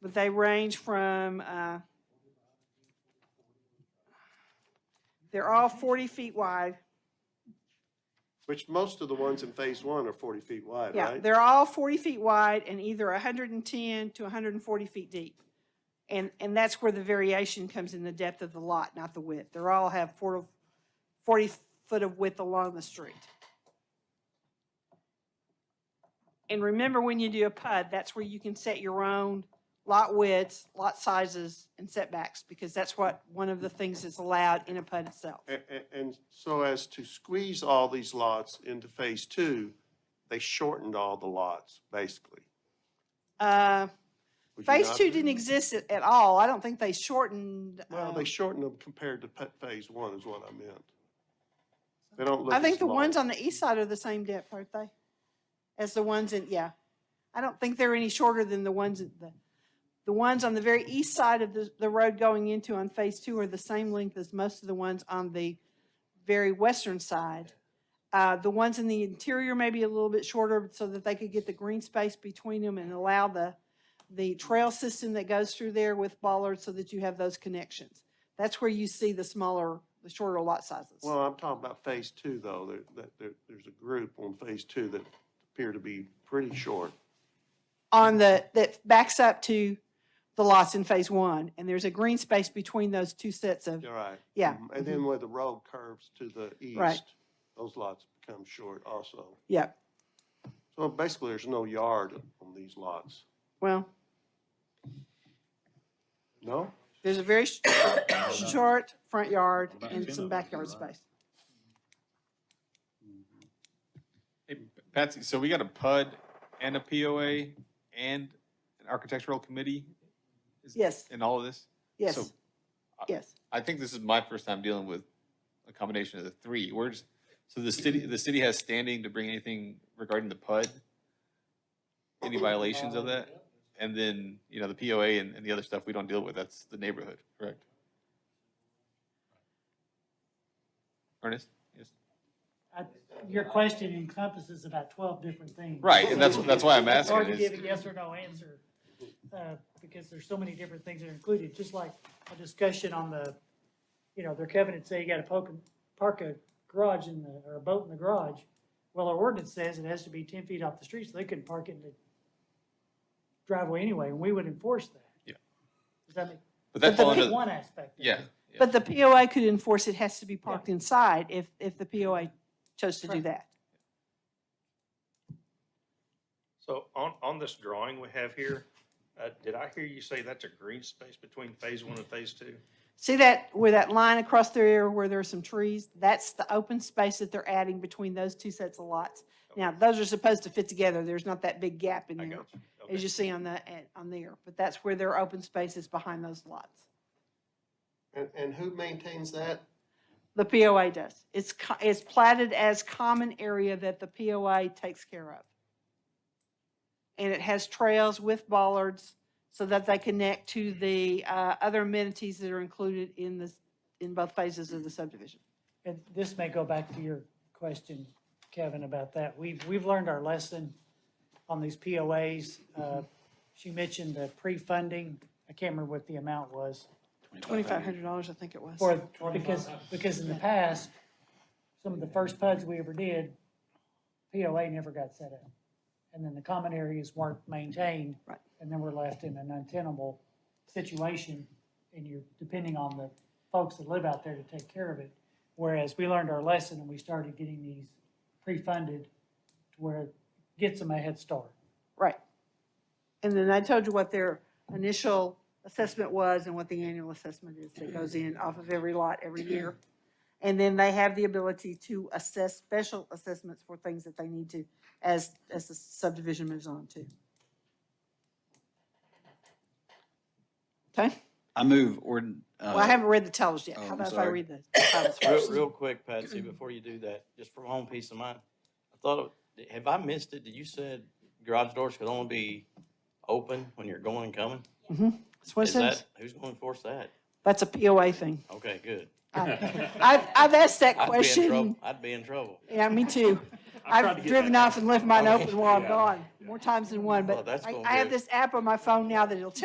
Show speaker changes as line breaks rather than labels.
But they range from, uh, they're all 40 feet wide.
Which most of the ones in phase one are forty feet wide,
Yeah,
right?
they're all 40 feet wide and either 110 to 140 feet deep. And, and that's where the variation comes in the depth of the lot, not the width. They're all have 40 40 foot of width along the street. And remember, when you do a PUD, that's where you can set your own lot widths, lot sizes, and setbacks, because that's what, one of the things that's allowed in a PUD itself.
A- a- and so as to squeeze all these lots into phase two, they shortened all the lots, basically.
Uh,
Would you
Phase
not
two
agree?
didn't exist at, at all. I don't think they shortened.
Well,
um,
they shortened them compared to pet phase one is what I meant. They don't look
I
as
think the ones
long.
on the east side are the same depth, aren't they? As the ones in, yeah. I don't think they're any shorter than the ones at the, the ones on the very east side of the, the road going into on phase two are the same length as most of the ones on the very western side. Uh, the ones in the interior may be a little bit shorter so that they could get the green space between them and allow the, the trail system that goes through there with bollards so that you have those connections. That's where you see the smaller, the shorter lot sizes.
Well, I'm talking about phase two though, there, that, there, there's a group on phase two that appear to be pretty short.
on the, that backs up to the lots in phase one, and there's a green space between those two sets of,
You're right.
yeah,
Mhm. And then where the road curves to the
Right.
east, those lots become short also.
yeah,
So basically, there's no yard on these lots.
well,
No?
there's a very sh- short front yard
About
and
10
some
of them,
backyard
you're right.
space.
Hey, Patsy, so we got a PUD and a POA and an architectural committee
Yes,
in all of this?
yes,
So
yes.
I think this is my first time dealing with a combination of the three. We're just, so the city, the city has standing to bring anything regarding the PUD? Any violations of that? And then, you know, the POA and, and the other stuff we don't deal with, that's the neighborhood, correct? Ernest? Yes.
I- Your question encompasses about twelve different things.
Right, and that's, that's why I'm
It's
asking
hard to
is-
give a yes or no answer, uh, because there's so many different things that are included, just like a discussion on the, you know, their covenant say you gotta poke, and- park a garage in the, or a boat in the garage. Well, our ordinance says it has to be ten feet off the street, so they couldn't park it in the driveway anyway, and we would enforce that.
Yeah.
Does that make,
But that
that's
fall under,
one aspect. of it.
yeah. yeah.
But the POA could enforce it has to be parked inside if, if the POA chose to do
Right.
that.
So on, on this drawing we have here, uh, did I hear you say that's a green space between phase one and phase two?
See that, where that line across there where there are some trees? That's the open space that they're adding between those two sets of lots. Now, those are supposed to fit together. There's not that big gap in
I
there.
got you. Okay.
as you see on the, at- on there, but that's where their open space is behind those lots.
And, and who maintains that?
The POA does. It's, co- it's platted as common area that the POA takes care of. And it has trails with bollards so that they connect to the, uh, other amenities that are included in this, in both phases of the subdivision.
And this may go back to your question, Kevin, about that. We've, we've learned our lesson on these POAs. Uh, She mentioned the pre-funding. I can't remember what the amount was.
Twenty-five hundred dollars, I think it was.
For, because, because in the past, some of the first PUDs we ever did, POA never got set up. And then the common areas weren't maintained.
Right.
And then we're left in an untenable situation, and you're depending on the folks that live out there to take care of it. Whereas we learned our lesson and we started getting these pre-funded to where it gets them a head start.
Right. And then I told you what their initial assessment was and what the annual assessment is that goes in off of every lot every year. And then they have the ability to assess special assessments for things that they need to as, as the subdivision moves on too. Okay,
I move uh, ord.
well,
Uh,
I haven't read the titles yet.
oh,
How
I'm
about if I
sorry.
read the titles
Real,
first?
real quick, Patsy, before you do that, just for my own peace of mind, I thought, it- have I missed it? Did you said garage doors could only be open when you're going and coming?
That's what it
Is that,
says.
who's going to enforce that?
That's a POA thing.
Okay, good.
I- I've, I've asked that
I'd be in trouble.
question.
I'd be in trouble.
Yeah, me too.
I tried
I've
to get
driven
that. Oh,
off and left mine
Okay.
open while I'm
Yeah.
gone, more times than one,
Oh,
but
that's
I,
gonna
I have
be-
this app on my phone now that'll tell